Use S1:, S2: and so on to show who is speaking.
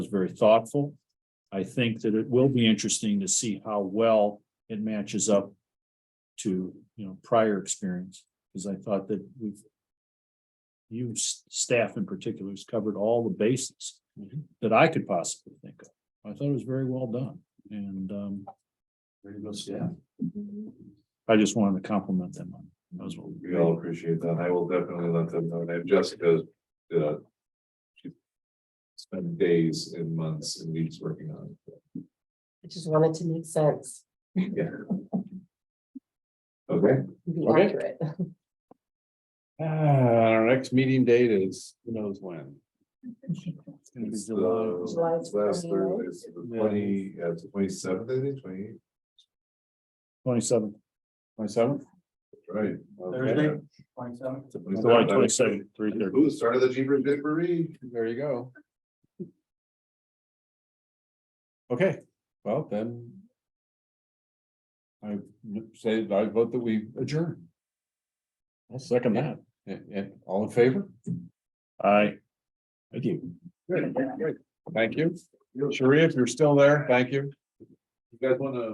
S1: very thoughtful. I think that it will be interesting to see how well it matches up to, you know, prior experience, because I thought that we've you s- staff in particular has covered all the bases
S2: Mm-hmm.
S1: that I could possibly think of. I thought it was very well done and um
S2: Very good staff.
S1: I just wanted to compliment them on those.
S2: We all appreciate that. I will definitely let them know. And if Jessica, uh. she Spent days and months and weeks working on it.
S3: I just wanted to make sense,
S2: Yeah. Okay.
S3: and be
S4: Okay.
S3: accurate.
S4: Ah, our next meeting date is, who knows when?
S2: It's the
S3: July
S2: last Thursday,
S3: 29th.
S2: it's the twenty, uh, twenty seventh, I think, twenty eighth,
S1: Twenty-seven.
S4: Twenty-seventh?
S2: right?
S4: Thursday,
S1: July twenty-seven, three thirty.
S2: Who started the Jeepers Jamboree?
S4: There you go. Okay, well then. I would say I vote that we adjourn. I'll second that. And, and all in favor?
S1: Aye.
S4: Thank you. Thank you. Sharia, if you're still there, thank you.
S2: You guys wanna